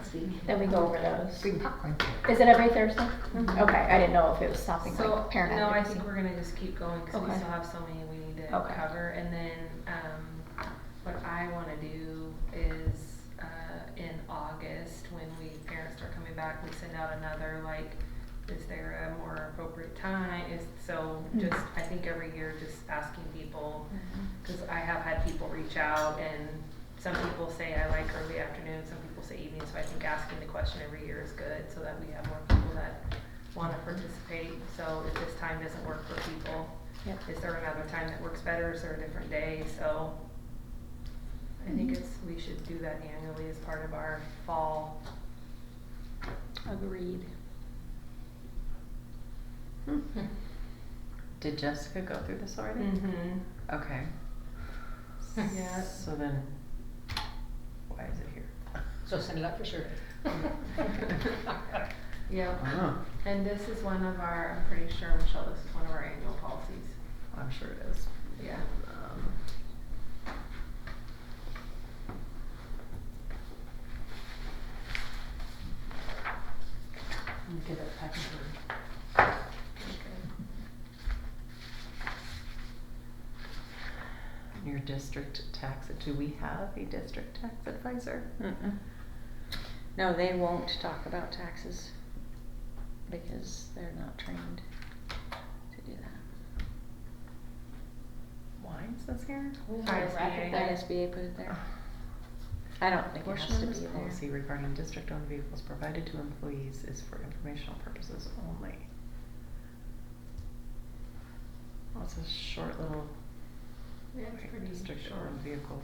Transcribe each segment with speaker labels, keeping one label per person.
Speaker 1: next week.
Speaker 2: Then we go over those.
Speaker 1: Bring popcorn.
Speaker 2: Is it every Thursday? Okay, I didn't know if it was something
Speaker 3: Mm-hmm. So,
Speaker 2: like parent
Speaker 3: no, I
Speaker 2: advocacy.
Speaker 3: think we're gonna just keep going, cause we
Speaker 2: Okay.
Speaker 3: still have so many we need to
Speaker 2: Okay.
Speaker 3: cover, and then, um, what I wanna do is, uh, in August, when we, parents are coming back, we send out another, like, is there a more appropriate time, is, so,
Speaker 2: Mm.
Speaker 3: just, I think every year, just asking people,
Speaker 2: Mm-hmm.
Speaker 3: cause I have had people reach out, and some people say I like early afternoon, some people say evening, so I think asking the question every year is good, so that we have more people that wanna participate, so if this time doesn't work for people,
Speaker 2: Yep.
Speaker 3: is there another time that works better, is there a different day, so. I think
Speaker 2: Mhm.
Speaker 3: it's, we should do that annually as part of our fall.
Speaker 2: Agreed.
Speaker 4: Did Jessica go through this already? Okay.
Speaker 3: Mm-hmm. Yeah.
Speaker 4: So then, why is it here?
Speaker 1: So send it out for sure.
Speaker 3: Yep,
Speaker 4: Oh,
Speaker 3: and this is one of our, I'm pretty sure, Michelle, this is one of our annual policies,
Speaker 4: I'm sure it is.
Speaker 3: yeah.
Speaker 4: Um,
Speaker 1: Give it back to her.
Speaker 4: Your district tax, do we have a district tax advisor?
Speaker 5: Mm-mm. No, they won't talk about taxes because they're not trained to do that.
Speaker 4: Why is this here?
Speaker 3: ISBA.
Speaker 5: The SBA put it there. I don't think it
Speaker 4: Portion
Speaker 5: has to
Speaker 4: of
Speaker 5: be
Speaker 4: this policy
Speaker 5: there.
Speaker 4: regarding district-owned vehicles provided to employees is for informational purposes only. Well, it's a short little.
Speaker 3: Yeah, it's
Speaker 4: like,
Speaker 3: pretty short.
Speaker 4: District-owned vehicle.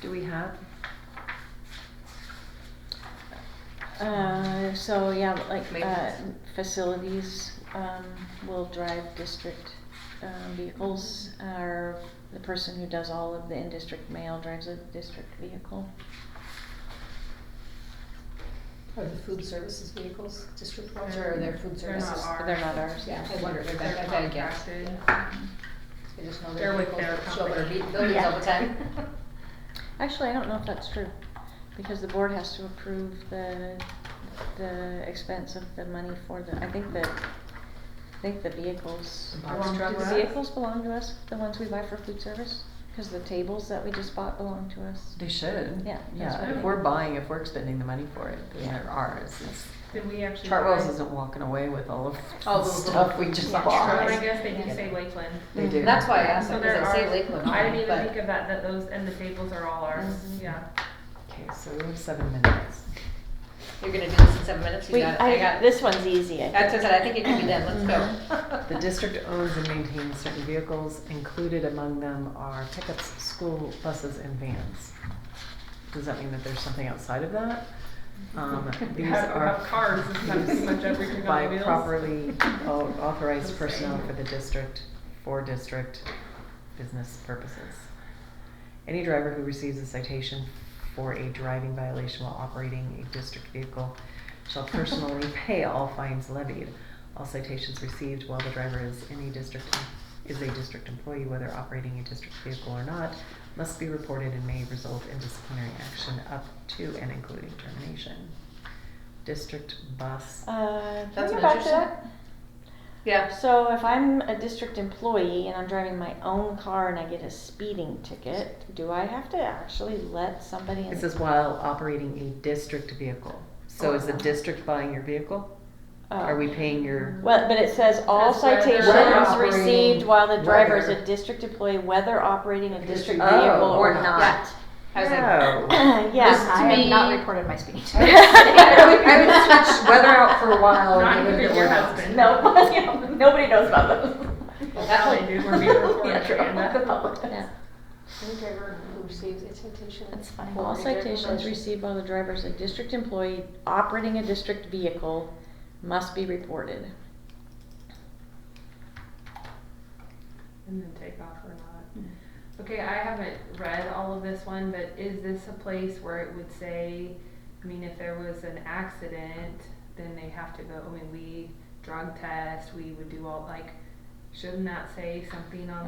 Speaker 4: Do we have?
Speaker 5: Uh, so yeah, but like, uh,
Speaker 4: Maintenance.
Speaker 5: facilities, um, will drive district, um, vehicles. Or the person who does all of the in-district mail drives a district vehicle.
Speaker 1: Are the food services vehicles district ones or are there food
Speaker 3: They're not
Speaker 1: services?
Speaker 3: ours.
Speaker 5: They're not ours.
Speaker 1: Yeah, I wondered, I
Speaker 3: They're
Speaker 1: bet, I bet I guessed.
Speaker 3: contracted.
Speaker 1: I just know
Speaker 3: They're
Speaker 1: their
Speaker 3: with
Speaker 1: vehicles
Speaker 3: their
Speaker 1: that show their
Speaker 3: company.
Speaker 1: be- buildings all the time.
Speaker 5: Actually, I don't know if that's true, because the board has to approve the, the expense of the money for the, I think that, I think the vehicles.
Speaker 1: The box
Speaker 5: Do
Speaker 1: truck
Speaker 5: the
Speaker 1: was?
Speaker 5: vehicles belong to us, the ones we buy for food service? Cause the tables that we just bought belong to us.
Speaker 4: They should.
Speaker 5: Yeah, that's what
Speaker 4: Yeah,
Speaker 5: I-
Speaker 4: if we're buying, if we're expending the money for it, then
Speaker 5: Yeah.
Speaker 4: they're ours. It's-
Speaker 3: Did we actually?
Speaker 4: Chartwell's
Speaker 3: buy-
Speaker 4: isn't walking away with all of
Speaker 1: All
Speaker 4: the
Speaker 1: those little
Speaker 4: stuff we just
Speaker 1: box
Speaker 4: bought.
Speaker 3: Well,
Speaker 1: trucks.
Speaker 3: I guess they do
Speaker 1: Yeah.
Speaker 3: say Lakeland.
Speaker 4: They do.
Speaker 1: That's why I asked,
Speaker 3: So
Speaker 1: because
Speaker 3: there
Speaker 1: I
Speaker 3: are,
Speaker 1: say Lakeland on
Speaker 3: I didn't
Speaker 1: it,
Speaker 3: even
Speaker 1: but- Mm-hmm.
Speaker 3: think of that, that those, and the tables are all ours,
Speaker 5: Mhm.
Speaker 3: yeah.
Speaker 4: Okay, so we have seven minutes.
Speaker 1: You're gonna do this in seven minutes? You
Speaker 5: We,
Speaker 1: got it. I
Speaker 5: I,
Speaker 1: got-
Speaker 5: this one's easy, I
Speaker 1: That's
Speaker 5: think.
Speaker 1: what I said, I think it can be done, let's go.
Speaker 4: The district owns and maintains certain vehicles. Included among them are pickups, school buses, and vans. Does that mean that there's something outside of that? Um,
Speaker 3: We
Speaker 4: these
Speaker 3: have- we
Speaker 4: are
Speaker 3: have cars, it's not
Speaker 4: used
Speaker 3: pretty much everything on
Speaker 4: by
Speaker 3: wheels.
Speaker 4: properly au- authorized personnel
Speaker 3: Same.
Speaker 4: for the district, for district business purposes. Any driver who receives a citation for a driving violation while operating a district vehicle shall personally pay all fines levied. All citations received while the driver is in a district, is a district employee, whether operating a district vehicle or not, must be reported and may result in disciplinary action up to and including termination. District bus.
Speaker 5: Uh, can
Speaker 1: That's
Speaker 5: we
Speaker 1: an
Speaker 5: go back to
Speaker 1: interesting-
Speaker 5: that?
Speaker 1: Yeah,
Speaker 5: So if I'm a district employee and I'm driving my own car and I get a speeding ticket, do I have to actually let somebody in?
Speaker 4: It says while operating a district vehicle. So is the
Speaker 1: Oh.
Speaker 4: district buying your vehicle?
Speaker 5: Oh.
Speaker 4: Are we paying your?
Speaker 5: Well, but it says all
Speaker 3: Says whether-
Speaker 4: Whether
Speaker 5: citations
Speaker 4: operating-
Speaker 5: received while the driver is a
Speaker 4: whether-
Speaker 5: district employee, whether operating a district
Speaker 4: Oh,
Speaker 5: vehicle or
Speaker 4: or
Speaker 5: not.
Speaker 1: not. I was like,
Speaker 4: No.
Speaker 5: Yes,
Speaker 1: to
Speaker 5: I am
Speaker 1: me-
Speaker 5: not.
Speaker 1: reported my speech.
Speaker 5: I
Speaker 6: would- I would switch weather out for a
Speaker 1: Oh,
Speaker 6: while.
Speaker 3: Not
Speaker 6: give it a
Speaker 3: even your
Speaker 6: whirl.
Speaker 3: husband.
Speaker 5: No, nobody knows about those.
Speaker 3: Well, now they do, we're being recorded,
Speaker 5: Yeah, true.
Speaker 3: Amanda.
Speaker 5: The public does.
Speaker 6: Yeah. Any driver who receives a citation.
Speaker 5: That's fine.
Speaker 6: for
Speaker 5: All
Speaker 6: a driver
Speaker 5: citations
Speaker 6: violation-
Speaker 5: received by the driver is a district employee operating a district vehicle must be reported.
Speaker 3: And then take off or not. Okay, I haven't read all of this one, but is this a place where it would say, I mean, if there was an accident, then they have to go, I mean, we drug test, we would do all, like, shouldn't that say something on